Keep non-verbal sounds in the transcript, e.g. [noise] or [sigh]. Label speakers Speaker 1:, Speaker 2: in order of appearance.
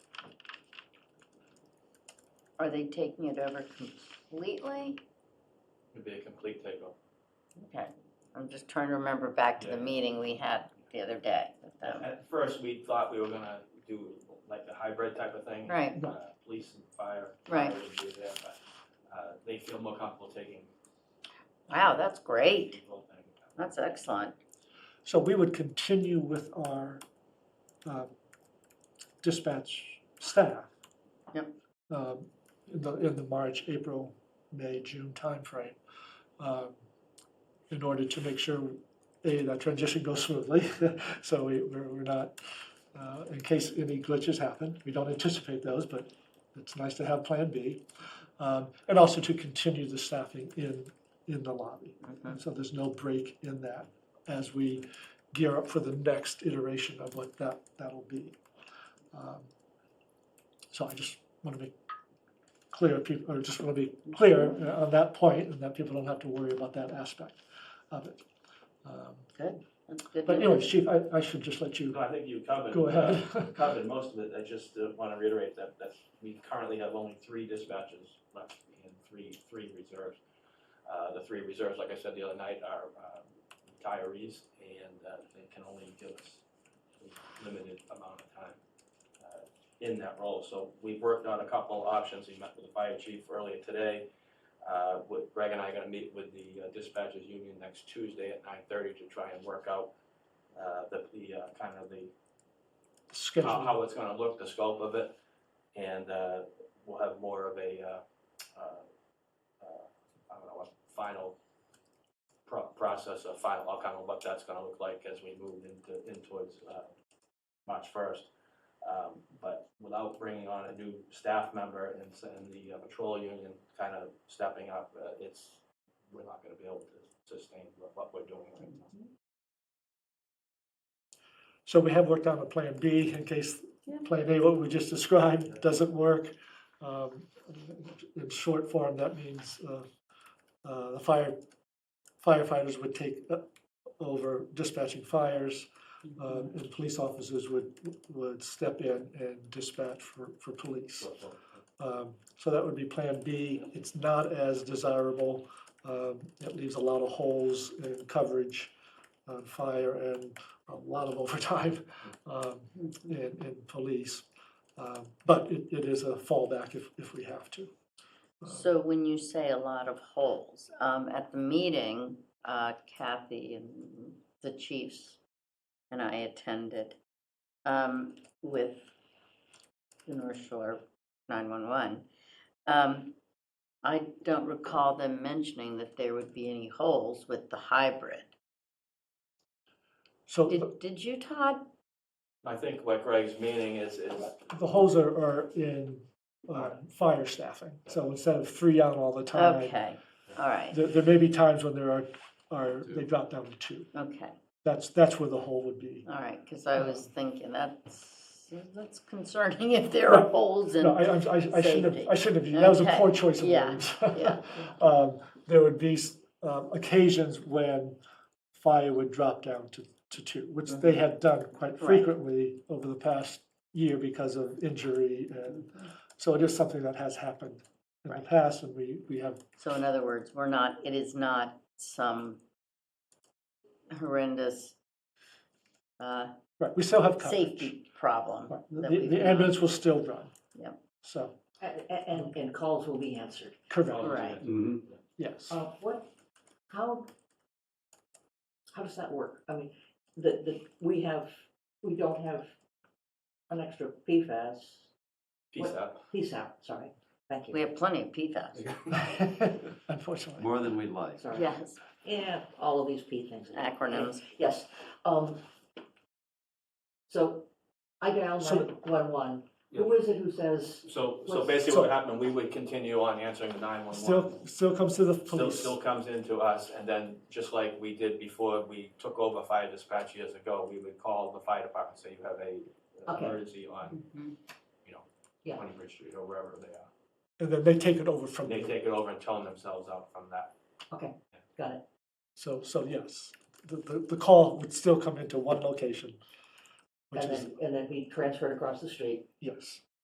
Speaker 1: Are they taking it over completely?
Speaker 2: It'd be a complete takeover.
Speaker 1: Okay, I'm just trying to remember back to the
Speaker 2: Yeah.
Speaker 1: meeting we had the other day with them.
Speaker 2: At first, we thought we were gonna do like a hybrid type of thing.
Speaker 1: Right.
Speaker 2: uh, Police and fire.
Speaker 1: Right.
Speaker 2: fire would be there, but, uh, They feel more comfortable taking.
Speaker 1: Wow, that's great.
Speaker 2: the whole thing.
Speaker 1: That's excellent.
Speaker 3: So we would continue with our uh, dispatch staff.
Speaker 1: Yep.
Speaker 3: um, In the, in the March, April, May, June timeframe. um, In order to make sure, A, that transition goes smoothly, [laughs] so we, we're we're not, uh, in case any glitches happen, we don't anticipate those, but it's nice to have Plan B. um, And also to continue the staffing in, in the lobby.
Speaker 1: Mhm.
Speaker 3: And so there's no break in that as we gear up for the next iteration of what that, that'll be. Um, So I just want to be clear, peop- or just want to be clear uh, on that point, and that people don't have to worry about that aspect of it. Um,
Speaker 1: Good, that's good.
Speaker 3: But
Speaker 1: news.
Speaker 3: anyways, Chief, I, I should just let you
Speaker 2: No, I think you covered.
Speaker 3: go ahead. [laughs]
Speaker 2: uh, Covered most of it. I just want to reiterate that, that we currently have only three dispatches left and three, three reserves. Uh, The three reserves, like I said the other night, are um, retirees and uh, they can only give us a limited amount of time uh, in that role. So we've worked on a couple of options. We met with the fire chief earlier today. Uh, with- Greg and I are going to meet with the uh, dispatchers union next Tuesday at 9:30 to try and work out uh, the, the uh, kind of the Uh, how,
Speaker 3: Schedule.
Speaker 2: how it's gonna look, the scope of it, and, uh, we'll have more of a, uh, uh, uh, I don't know, a final pro- process, a final outcome of what that's gonna look like as we move into, in towards, uh, March first. Um, but without bringing on a new staff member and, s- and the uh, patrol union kind of stepping up, uh, it's, we're not gonna be able to sustain what, what we're doing right now.
Speaker 3: So we have worked on a Plan B in case
Speaker 1: Yeah.
Speaker 3: Plan A, what we just described, doesn't work. Um, In short form, that means uh, uh, the fire firefighters would take uh, over dispatching fires. um, And police officers would, would step in and dispatch for, for police.
Speaker 2: So- so-
Speaker 3: Um, So that would be Plan B. It's not as desirable. Um, It leaves a lot of holes in coverage on fire and a lot of [laughs] overtime um, in, in police. Um, But it, it is a fallback if, if we have to. Um,
Speaker 1: So when you say a lot of holes, um, at the meeting, uh, Kathy and the chiefs and I attended, um, with the North Shore nine-one-one. Um, I don't recall them mentioning that there would be any holes with the hybrid.
Speaker 3: So the-
Speaker 1: Did, did you, Todd?
Speaker 2: I think what Greg's meaning is, is
Speaker 3: the holes are, are in um, fire staffing. So instead of three on all the time,
Speaker 1: Okay, all right,
Speaker 3: there, there may be times when there are, are, they drop down to two.
Speaker 1: okay,
Speaker 3: That's, that's where the hole would be.
Speaker 1: all right, because I was thinking that's, that's concerning [laughs] if there are holes in.
Speaker 3: No, I, I'm- I, I shouldn't have, I
Speaker 1: safety.
Speaker 3: shouldn't have, used- that was a poor
Speaker 1: Okay,
Speaker 3: choice of
Speaker 1: yeah,
Speaker 3: words.
Speaker 1: yeah.
Speaker 3: [laughs] Um, There would be s- um, occasions when fire would drop down to, to two, which they
Speaker 1: Mm-hmm.
Speaker 3: have done quite frequently over the past year because of injury. and So it is something that has happened in the
Speaker 1: Mm-hmm. Right.
Speaker 3: past, and we, we have,
Speaker 1: So in other words, we're not, it is not some horrendous uh,
Speaker 3: right, we still have coverage.
Speaker 1: safety problem.
Speaker 3: Right,
Speaker 1: that
Speaker 3: The
Speaker 1: we've
Speaker 3: the ambulance will still run.
Speaker 1: Yep.
Speaker 3: So,
Speaker 4: A- a- And, and calls will be answered.
Speaker 3: correct,
Speaker 1: Right.
Speaker 3: yes.
Speaker 4: Uh, what, how, how does that work? I mean, the, the, we have, we don't have an extra PFAS,
Speaker 2: peace out.
Speaker 4: PSAP, sorry, thank
Speaker 1: We
Speaker 4: you,
Speaker 1: have plenty of PFAS.
Speaker 3: [laughs] Unfortunately.
Speaker 5: More than we'd like.
Speaker 4: sorry.
Speaker 1: Yes,
Speaker 4: Yeah, all of these P things.
Speaker 1: acronyms.
Speaker 4: Yes, um, so I dial
Speaker 3: So-
Speaker 4: nine one one, who is it who says,
Speaker 2: So, so
Speaker 4: Was-
Speaker 2: basically
Speaker 3: So-
Speaker 2: what happened, we would continue on answering the
Speaker 3: Still,
Speaker 2: 911.
Speaker 3: still comes to the
Speaker 2: Still,
Speaker 3: police.
Speaker 2: still comes into us, and then just like we did before we took over fire dispatch years ago, we would call the fire department, say you have a uh,
Speaker 4: Okay.
Speaker 2: emergency on
Speaker 3: Mm-hmm.
Speaker 1: Mhm.
Speaker 4: Yeah.
Speaker 2: Twenty Bridge Street or wherever they are.
Speaker 3: And then they take it over from
Speaker 2: They
Speaker 3: there.
Speaker 2: take it over and tone themselves out from that.
Speaker 4: okay, got it,
Speaker 3: So, so yes, the, the, the call would still come into one location, which
Speaker 4: and
Speaker 3: is,
Speaker 4: then, and then we transfer it across the street,
Speaker 3: yes,